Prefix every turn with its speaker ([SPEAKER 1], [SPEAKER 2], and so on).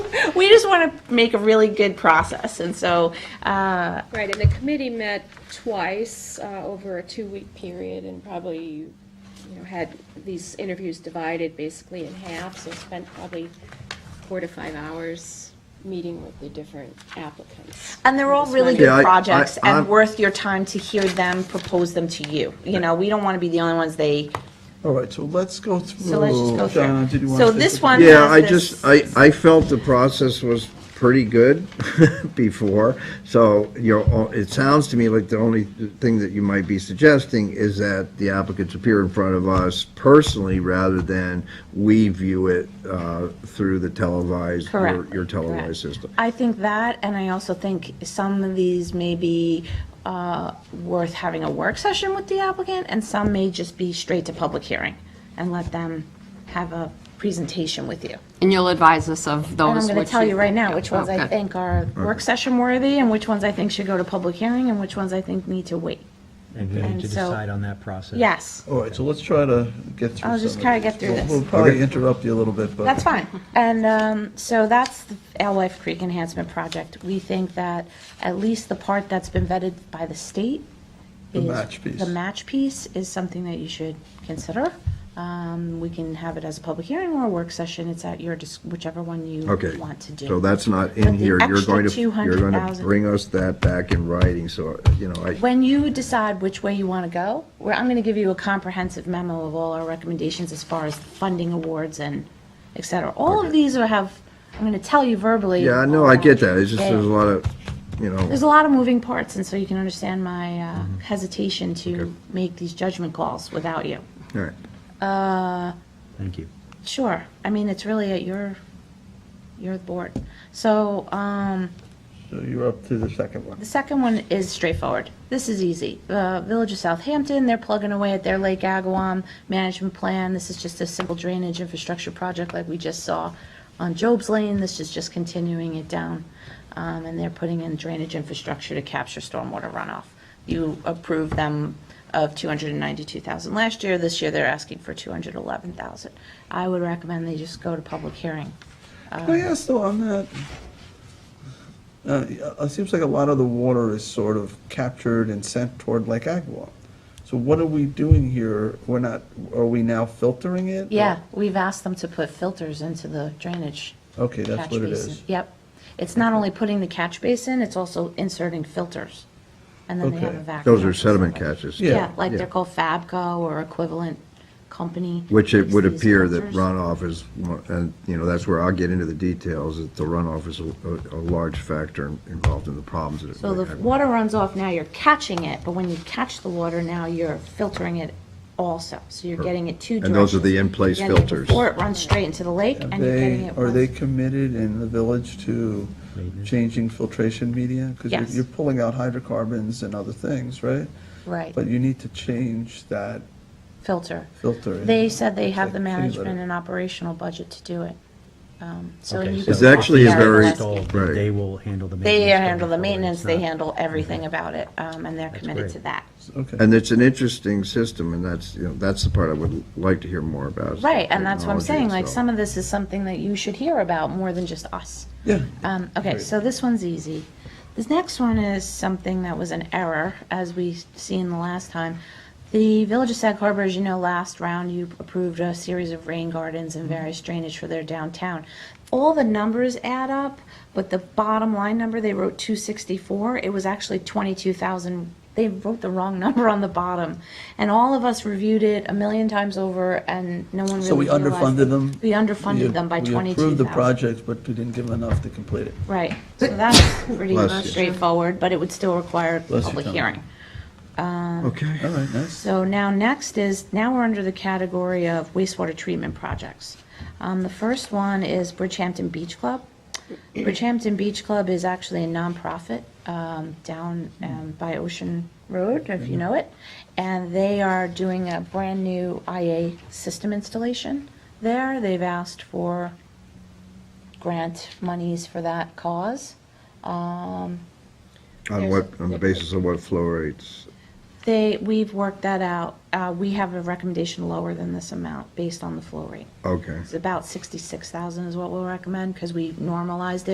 [SPEAKER 1] we just want to make a really good process, and so, uh,
[SPEAKER 2] Right, and the committee met twice uh, over a two-week period and probably, you know, had these interviews divided basically in half, so spent probably four to five hours meeting with the different applicants.
[SPEAKER 1] and they're all really
[SPEAKER 2] Yeah,
[SPEAKER 1] good
[SPEAKER 3] I- I-
[SPEAKER 1] projects and
[SPEAKER 3] I'm-
[SPEAKER 1] worth your time to hear them propose them to you. You know, we don't want to be the only ones they,
[SPEAKER 4] All right, so let's go through.
[SPEAKER 1] so let's just go
[SPEAKER 4] Donna, did you
[SPEAKER 1] through.
[SPEAKER 4] want to
[SPEAKER 1] So
[SPEAKER 4] take
[SPEAKER 1] this
[SPEAKER 4] the-
[SPEAKER 1] one
[SPEAKER 3] Yeah, I
[SPEAKER 1] has this-
[SPEAKER 3] just, I, I felt the process was pretty good before, so, you know, it sounds to me like the only thing that you might be suggesting is that the applicants appear in front of us personally rather than we view it uh, through the televised, your-
[SPEAKER 1] Correct.
[SPEAKER 3] your
[SPEAKER 1] Correct.
[SPEAKER 3] televised system.
[SPEAKER 1] I think that, and I also think some of these may be uh, worth having a work session with the applicant, and some may just be straight to public hearing and let them have a presentation with you.
[SPEAKER 5] And you'll advise us of
[SPEAKER 1] And
[SPEAKER 5] those
[SPEAKER 1] I'm
[SPEAKER 5] which you...
[SPEAKER 1] going to tell you right now which ones I
[SPEAKER 5] Okay.
[SPEAKER 1] think are work session worthy, and which ones I think should go to public hearing, and which ones I think need to wait.
[SPEAKER 6] And we
[SPEAKER 1] And
[SPEAKER 6] need to
[SPEAKER 1] so-
[SPEAKER 6] decide on that process.
[SPEAKER 1] Yes,
[SPEAKER 4] All right, so let's try to get through
[SPEAKER 1] I'll just
[SPEAKER 4] some
[SPEAKER 1] kinda
[SPEAKER 4] these.
[SPEAKER 1] get through
[SPEAKER 4] We'll-
[SPEAKER 1] this.
[SPEAKER 4] We'll probably interrupt you a little bit, but.
[SPEAKER 1] that's fine. And um, so that's the Alewife Creek Enhancement Project. We think that at least the part that's been vetted by the state
[SPEAKER 4] The
[SPEAKER 1] is-
[SPEAKER 4] match piece.
[SPEAKER 1] The match piece is something that you should consider. Um, We can have it as a public hearing or a work session, it's at your, dis- whichever one you
[SPEAKER 3] Okay,
[SPEAKER 1] want to do.
[SPEAKER 3] so that's not
[SPEAKER 1] But the
[SPEAKER 3] in here. You're
[SPEAKER 1] extra
[SPEAKER 3] going to, you're going to
[SPEAKER 1] 200,000
[SPEAKER 3] bring us that back in writing, so, you know, I,
[SPEAKER 1] When you decide which way you want to go, where I'm going to give you a comprehensive memo of all our recommendations as far as funding awards and et cetera. All of these are have, I'm going to tell you verbally.
[SPEAKER 3] yeah, no, I get that, it's just, there's a lot of, you know.
[SPEAKER 1] There's a lot of moving parts, and so you can understand my uh,
[SPEAKER 3] Mm-hmm.
[SPEAKER 1] hesitation to make these judgment calls without you.
[SPEAKER 3] All right.
[SPEAKER 6] Thank you.
[SPEAKER 1] Sure. I mean, it's really at your, your board. So, um,
[SPEAKER 4] So you're up to the second one.
[SPEAKER 1] the second one is straightforward. This is easy. Uh, Village of Southampton, they're plugging away at their Lake Agawam management plan. This is just a simple drainage infrastructure project like we just saw on Job's Lane. This is just continuing it down. Um, and they're putting in drainage infrastructure to capture stormwater runoff. You approved them of 292,000 last year. This year, they're asking for 211,000. I would recommend they just go to public hearing.
[SPEAKER 4] Can I ask though on that? Uh, it seems like a lot of the water is sort of captured and sent toward Lake Agawam. So what are we doing here? We're not, are we now filtering it?
[SPEAKER 1] Yeah, we've asked them to put filters into the drainage.
[SPEAKER 4] Okay, that's
[SPEAKER 1] catch
[SPEAKER 4] what it
[SPEAKER 1] basin.
[SPEAKER 4] is.
[SPEAKER 1] Yep. It's not only putting the catch basin, it's also inserting filters. And then they have a
[SPEAKER 4] Okay.
[SPEAKER 1] vacuum.
[SPEAKER 3] Those are sediment catches.
[SPEAKER 4] Yeah.
[SPEAKER 1] Yeah, like
[SPEAKER 3] yeah.
[SPEAKER 1] they're called Fabco or equivalent company.
[SPEAKER 3] Which it
[SPEAKER 1] makes
[SPEAKER 3] would
[SPEAKER 1] these
[SPEAKER 3] appear that
[SPEAKER 1] filters.
[SPEAKER 3] runoff is, one- and, you know, that's where I'll get into the details, that the runoff is a, a large factor in- involved in the problems that it.
[SPEAKER 1] So the
[SPEAKER 3] might have.
[SPEAKER 1] water runs off now, you're catching it, but when you catch the water now, you're filtering it also. So you're getting it two
[SPEAKER 3] And those are the
[SPEAKER 1] directions.
[SPEAKER 3] in-place
[SPEAKER 1] You're getting it
[SPEAKER 3] filters.
[SPEAKER 1] Before it runs straight into the lake and you're getting
[SPEAKER 4] They,
[SPEAKER 1] it.
[SPEAKER 4] are they
[SPEAKER 1] once-
[SPEAKER 4] committed in the village to
[SPEAKER 6] Maintenance.
[SPEAKER 4] changing filtration media?
[SPEAKER 1] Yes.
[SPEAKER 4] Because you're pulling out hydrocarbons and other things, right?
[SPEAKER 1] Right,
[SPEAKER 4] But you need to change that
[SPEAKER 1] filter.
[SPEAKER 4] filter.
[SPEAKER 1] They said they have the
[SPEAKER 4] Like, clean litter.
[SPEAKER 1] management and operational budget to do it. Um, So
[SPEAKER 6] Okay,
[SPEAKER 1] you
[SPEAKER 6] so
[SPEAKER 1] can
[SPEAKER 3] It's actually
[SPEAKER 1] talk to
[SPEAKER 3] a very-
[SPEAKER 1] Gary Gillespie.
[SPEAKER 6] Installed,
[SPEAKER 3] right.
[SPEAKER 6] They will handle the maintenance.
[SPEAKER 1] They handle the
[SPEAKER 6] going forward.
[SPEAKER 1] maintenance,
[SPEAKER 6] It's
[SPEAKER 1] they
[SPEAKER 6] not-
[SPEAKER 1] handle
[SPEAKER 3] Mm-hmm.
[SPEAKER 1] everything about it, um, and they're committed
[SPEAKER 6] great.
[SPEAKER 1] to that.
[SPEAKER 4] Okay.
[SPEAKER 3] And it's an interesting system, and that's, you know, that's the part I would like to hear more about. is the
[SPEAKER 1] Right, and that's what I'm
[SPEAKER 3] technology
[SPEAKER 1] saying, like,
[SPEAKER 3] itself.
[SPEAKER 1] some of this is something that you should hear about more than just us.
[SPEAKER 4] Yeah.
[SPEAKER 1] Um, okay, so this one's easy. This next one is something that was an error, as we seen the last time. The Village of Sag Harbor, as you know, last round, you approved a series of rain gardens and
[SPEAKER 4] Mm-hmm.
[SPEAKER 1] various drainage for their downtown. All the numbers add up, but the bottom line number, they wrote two sixty-four, it was actually twenty-two thousand. They wrote the wrong number on the bottom, and all of us reviewed it a million times over, and no one really
[SPEAKER 4] So we
[SPEAKER 1] realized
[SPEAKER 4] underfunded
[SPEAKER 1] it.
[SPEAKER 4] them?
[SPEAKER 1] We
[SPEAKER 4] We-
[SPEAKER 1] underfunded them by
[SPEAKER 4] We
[SPEAKER 1] twenty-two thousand.
[SPEAKER 4] approved the project, but we didn't give them enough to complete it.
[SPEAKER 1] Right, so that's pretty
[SPEAKER 3] Bless you.
[SPEAKER 1] straightforward, but it would still require a
[SPEAKER 4] you,
[SPEAKER 1] public
[SPEAKER 4] Tom.
[SPEAKER 1] hearing.
[SPEAKER 4] All
[SPEAKER 3] Okay.
[SPEAKER 4] right, nice.
[SPEAKER 1] So now, next is, now we're under the category of wastewater treatment projects. Um, the first one is Bridgehampton Beach Club. Bridgehampton Beach Club is actually a nonprofit, um, down, um, by Ocean Road, if you know it. And they are doing a brand-new IA system installation there. They've asked for grant monies for that cause. Um,
[SPEAKER 3] On what, on the basis of what flow rates?
[SPEAKER 1] They, we've worked that out. Uh, We have a recommendation lower than this amount based on the flow rate.
[SPEAKER 3] Okay.
[SPEAKER 1] It's about 66,000 is what we'll recommend because we normalized it.